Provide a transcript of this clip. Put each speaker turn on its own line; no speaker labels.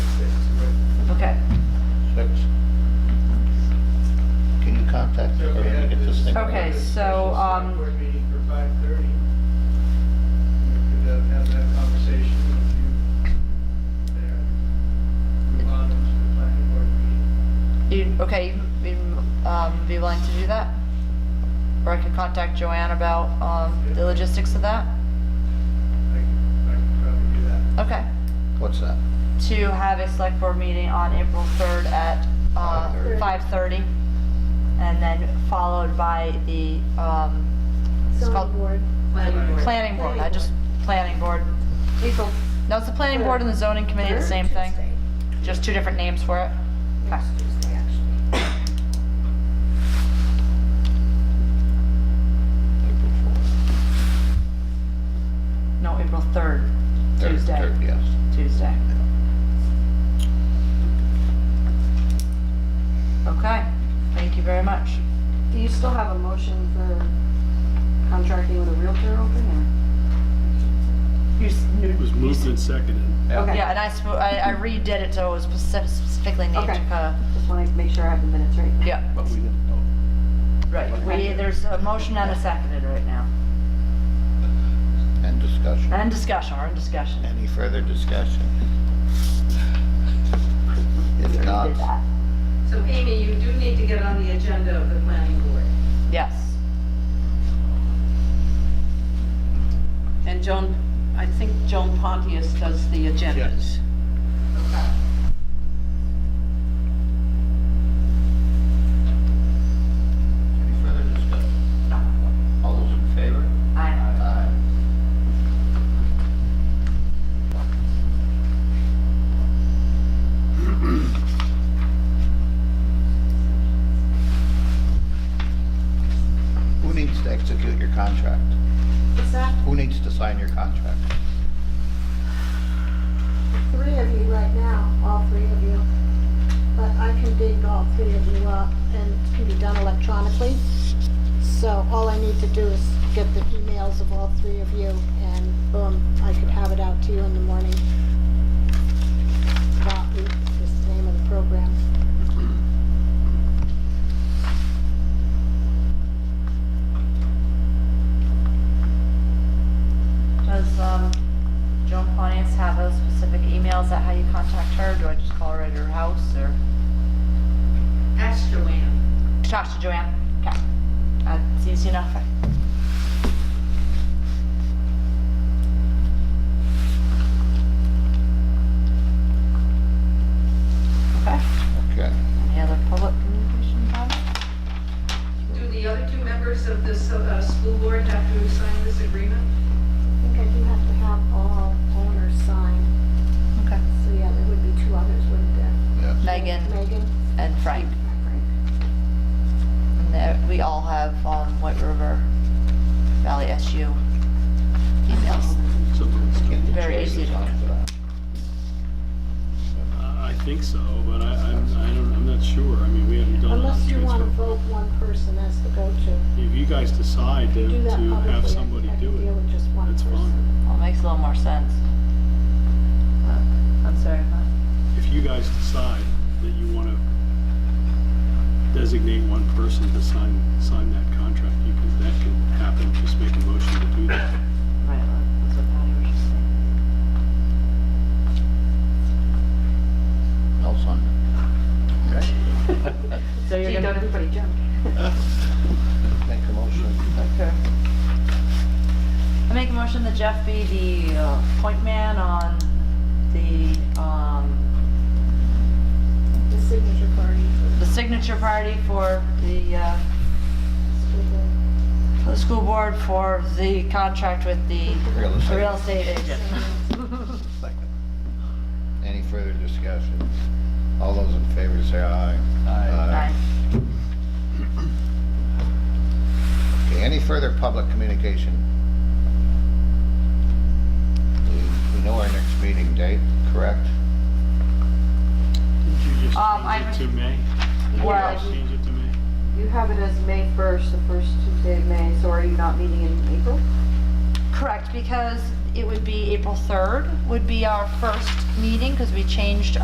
Okay, so, um,
Board meeting for five thirty. We could uh, have that conversation with you there. Move on to the planning board meeting.
You, okay, you, um, be willing to do that? Or I could contact Joanne about, um, the logistics of
I
that?
could- I could probably do that.
Okay.
What's that?
To have a select board meeting on April third at, uh,
5:30.
five thirty. And then followed by the, um, it's called-
Zoning board.
planning board, I just, planning board.
April.
No, it's the planning board and the zoning committee, the same thing, just two different names for it. Okay.
Tuesday, actually.
No, April third,
Third-
Tuesday,
third, Yes.
Tuesday. Okay, thank you very much.
Do you still have a motion for contracting with a realtor open
You s-
It was moved and seconded.
or?
Yeah.
Okay.
Yeah, and I, sp- I I redid it so it was spec- specifically named
Okay.
to kinda,
Just want to make sure I have the minutes right.
yeah,
But we didn't know.
right. We,
Okay.
there's a motion and a seconded right now.
And discussion.
And discussion, we're in discussion.
Any further discussion?
We
If
already
not,
did that.
So Amy, you do need to get on the agenda of the planning board.
Yes.
And Joan, I think Joan Pontius does the agendas.
Okay.
any further discussion? All those in favor?
I
Aye. Who needs to execute your contract?
What's that?
Who needs to sign your contract?
Three of you right now, all three of you. But I can dig all three of you up and it can be done electronically. So all I need to do is get the emails of all three of you and boom, I could have it out to you in the morning. Copy is the name of the program.
Does, um, Joan Pontius have those specific emails? Is that how you contact her? Do I just call her at her house or?
That's Joanne.
Talk to Joanne. Okay. That's easy enough. Okay.
Okay.
Any other public communication comments?
Do the other two members of this uh, school board have to sign this agreement?
I think I do have to have all owners sign.
Okay.
So yeah, there would be two others, wouldn't there?
Yeah.
Megan
Megan?
and Frank. And there- we all have, um, White River Valley SU emails.
Something like that.
Very easy to-
I I think so, but I, I'm, I don't, I'm not sure. I mean, we haven't done. a
Unless you want to
transfer.
vote one person as the go-to.
If you guys decide to,
You do that
to
publicly, I
have
think
somebody
I
do
can deal
it,
with just one
that's
person.
fine.
Well, makes a little more sense. Uh, I'm sorry,
If you guys decide that you want to designate one person to sign, sign that contract, you can, that can happen. Just make a motion to do that.
Right, that's what Patty was just saying.
I'll sign it. Okay.
So
So
you're
you don't
gonna,
everybody jump.
Make a motion.
okay. I make a motion that Jeff be the uh, point man on the, um,
The signature party for
the signature party for the, uh, for the
the school board.
school board for the contract with the
Real estate.
real estate agent.
Second. Any further discussion? All those in favor say aye.
Aye.
Okay, any further public communication? We- We know our next meeting date, correct?
Did you just
Um, I-
change it to May? Did you
Well-
just Change it to May?
You have it as May 1st, the first Tuesday of May, so are you not meeting in April?
Correct, because it would be April 3rd would be our first meeting, because we changed